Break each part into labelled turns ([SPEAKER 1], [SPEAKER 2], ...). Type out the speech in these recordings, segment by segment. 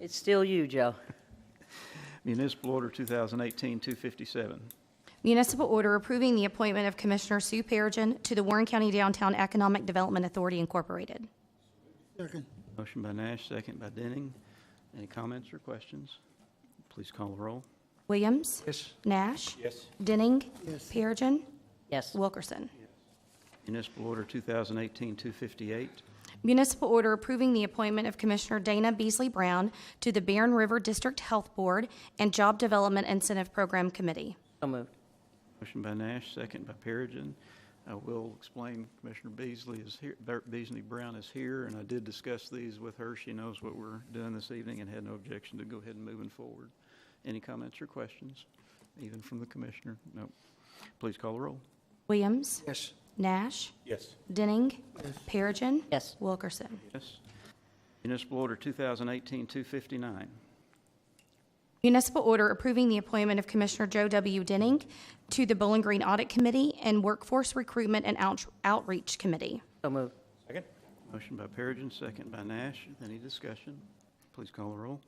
[SPEAKER 1] It's still you, Joe.
[SPEAKER 2] Municipal Order 2018-257.
[SPEAKER 3] Municipal order approving the appointment of Commissioner Sue Perigin to the Warren County Downtown Economic Development Authority Incorporated.
[SPEAKER 4] Second.
[SPEAKER 2] Motion by Nash, second by Denning. Any comments or questions? Please call the roll.
[SPEAKER 3] Williams.
[SPEAKER 4] Yes.
[SPEAKER 3] Nash.
[SPEAKER 2] Yes.
[SPEAKER 3] Denning.
[SPEAKER 4] Yes.
[SPEAKER 3] Perigin.
[SPEAKER 1] Yes.
[SPEAKER 3] Wilkerson.
[SPEAKER 2] Municipal Order 2018-258.
[SPEAKER 3] Municipal order approving the appointment of Commissioner Dana Beasley Brown to the Barron River District Health Board and Job Development Incentive Program Committee.
[SPEAKER 1] So moved.
[SPEAKER 2] Motion by Nash, second by Perigin. I will explain, Commissioner Beasley is here, Ber- Beasley Brown is here, and I did discuss these with her. She knows what we're doing this evening and had no objection to go ahead and moving forward. Any comments or questions, even from the commissioner? No. Please call the roll.
[SPEAKER 3] Williams.
[SPEAKER 4] Yes.
[SPEAKER 3] Nash.
[SPEAKER 2] Yes.
[SPEAKER 3] Denning. Perigin.
[SPEAKER 1] Yes.
[SPEAKER 3] Wilkerson.
[SPEAKER 2] Yes. Municipal Order 2018-259.
[SPEAKER 3] Municipal order approving the appointment of Commissioner Joe W. Denning to the Bowling Green Audit Committee and Workforce Recruitment and Out- Outreach Committee.
[SPEAKER 1] So moved.
[SPEAKER 2] Motion by Perigin, second by Nash. Any discussion? Please call the roll.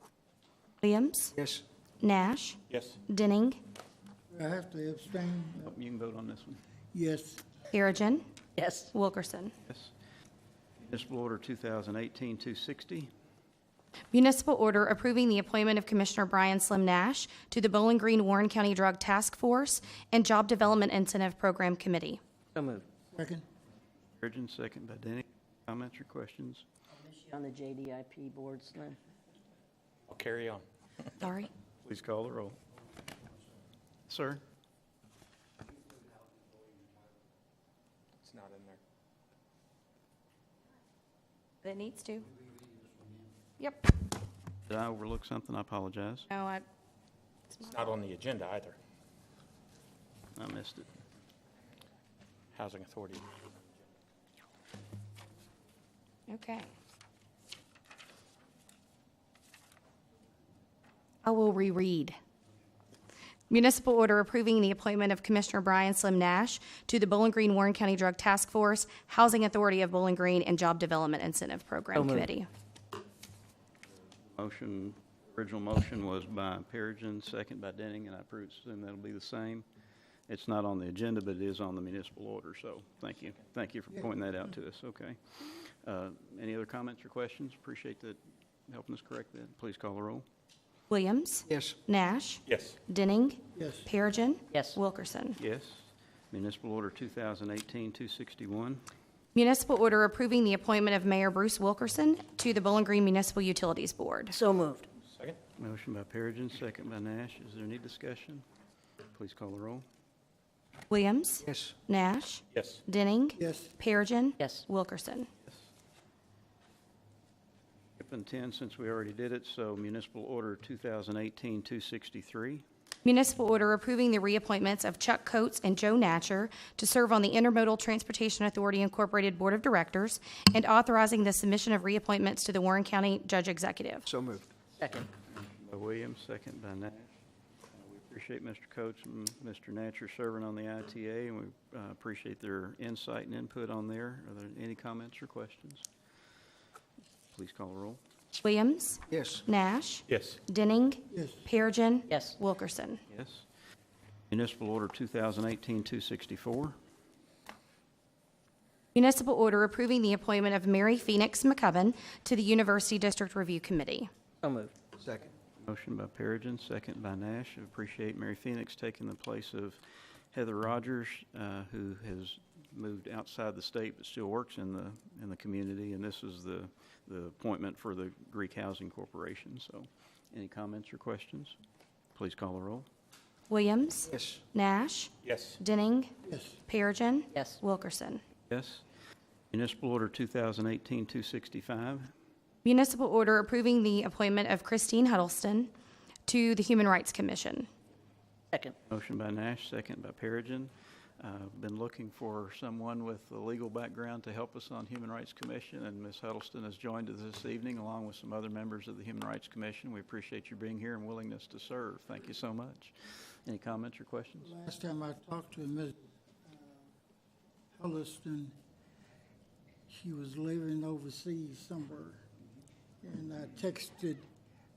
[SPEAKER 3] Williams.
[SPEAKER 4] Yes.
[SPEAKER 3] Nash.
[SPEAKER 2] Yes.
[SPEAKER 3] Denning.
[SPEAKER 4] I have to abstain.
[SPEAKER 2] Oh, You can vote on this one.
[SPEAKER 4] Yes.
[SPEAKER 3] Perigin.
[SPEAKER 1] Yes.
[SPEAKER 3] Wilkerson.
[SPEAKER 2] Yes. Municipal Order 2018-260.
[SPEAKER 3] Municipal order approving the appointment of Commissioner Brian Slim Nash to the Bowling Green Warren County Drug Task Force and Job Development Incentive Program Committee.
[SPEAKER 1] So moved.
[SPEAKER 4] Second.
[SPEAKER 2] Perigin, second by Denny. Comments or questions?
[SPEAKER 1] Is she on the JDIP board, Slim?
[SPEAKER 5] I'll carry on.
[SPEAKER 3] Sorry.
[SPEAKER 2] Please call the roll. Sir?
[SPEAKER 5] It's not in there.
[SPEAKER 3] That needs to. Yep.
[SPEAKER 2] Did I overlook something? I apologize.
[SPEAKER 3] No, I,
[SPEAKER 5] It's not on the agenda either.
[SPEAKER 2] I missed it.
[SPEAKER 5] Housing Authority.
[SPEAKER 3] okay. I will reread. Municipal order approving the appointment of Commissioner Brian Slim Nash to the Bowling Green Warren County Drug Task Force, Housing Authority of Bowling Green, and Job Development Incentive
[SPEAKER 1] So
[SPEAKER 3] Program
[SPEAKER 1] moved.
[SPEAKER 3] Committee.
[SPEAKER 2] Motion, original motion was by Perigin, second by Denning, and I presume that'll be the same. It's not on the agenda, but it is on the municipal order, so thank you. Thank you for pointing that out to us, okay. Uh, Any other comments or questions? Appreciate that, helping us correct that. Please call the roll.
[SPEAKER 3] Williams.
[SPEAKER 4] Yes.
[SPEAKER 3] Nash.
[SPEAKER 5] Yes.
[SPEAKER 3] Denning.
[SPEAKER 4] Yes.
[SPEAKER 3] Perigin.
[SPEAKER 1] Yes.
[SPEAKER 3] Wilkerson.
[SPEAKER 2] Yes. Municipal Order 2018-261.
[SPEAKER 3] Municipal order approving the appointment of Mayor Bruce Wilkerson to the Bowling Green Municipal Utilities Board.
[SPEAKER 1] So moved.
[SPEAKER 5] Second?
[SPEAKER 2] Motion by Perigin, second by Nash. Is there any discussion? Please call the roll.
[SPEAKER 3] Williams.
[SPEAKER 4] Yes.
[SPEAKER 3] Nash.
[SPEAKER 5] Yes.
[SPEAKER 3] Denning.
[SPEAKER 4] Yes.
[SPEAKER 3] Perigin.
[SPEAKER 1] Yes.
[SPEAKER 3] Wilkerson.
[SPEAKER 2] Skipping 10, since we already did it, so Municipal Order 2018-263.
[SPEAKER 3] Municipal order approving the reappointments of Chuck Coates and Joe Natcher to serve on the Intermodal Transportation Authority Incorporated Board of Directors and authorizing the submission of reappointments to the Warren County Judge Executive.
[SPEAKER 4] So moved.
[SPEAKER 1] Second.
[SPEAKER 2] By Williams, second by Nash. Uh, We appreciate Mr. Coates and Mr. Natcher serving on the ITA, and we uh, appreciate their insight and input on there. Are there any comments or questions? Please call the roll.
[SPEAKER 3] Williams.
[SPEAKER 4] Yes.
[SPEAKER 3] Nash.
[SPEAKER 5] Yes.
[SPEAKER 3] Denning.
[SPEAKER 4] Yes.
[SPEAKER 3] Perigin.
[SPEAKER 1] Yes.
[SPEAKER 3] Wilkerson.
[SPEAKER 2] Yes. Municipal Order 2018-264.
[SPEAKER 3] Municipal order approving the appointment of Mary Phoenix McCubbin to the University District Review Committee.
[SPEAKER 1] So moved.
[SPEAKER 4] Second.
[SPEAKER 2] Motion by Perigin, second by Nash. Appreciate Mary Phoenix taking the place of Heather Rogers, uh, who has moved outside the state but still works in the, in the community. And this is the, the appointment for the Greek Housing Corporation. So any comments or questions? Please call the roll.
[SPEAKER 3] Williams.
[SPEAKER 4] Yes.
[SPEAKER 3] Nash.
[SPEAKER 5] Yes.
[SPEAKER 3] Denning.
[SPEAKER 4] Yes.
[SPEAKER 3] Perigin.
[SPEAKER 1] Yes.
[SPEAKER 3] Wilkerson.
[SPEAKER 2] Yes. Municipal Order 2018-265.
[SPEAKER 3] Municipal order approving the appointment of Christine Huddleston to the Human Rights Commission.
[SPEAKER 1] Second.
[SPEAKER 2] Motion by Nash, second by Perigin. Uh, Been looking for someone with a legal background to help us on Human Rights Commission, and Ms. Huddleston has joined us this evening along with some other members of the Human Rights Commission. We appreciate you being here and willingness to serve. Thank you so much. Any comments or questions?
[SPEAKER 4] Last time I talked to uh, Ms. Holliston, she was living overseas somewhere. And I texted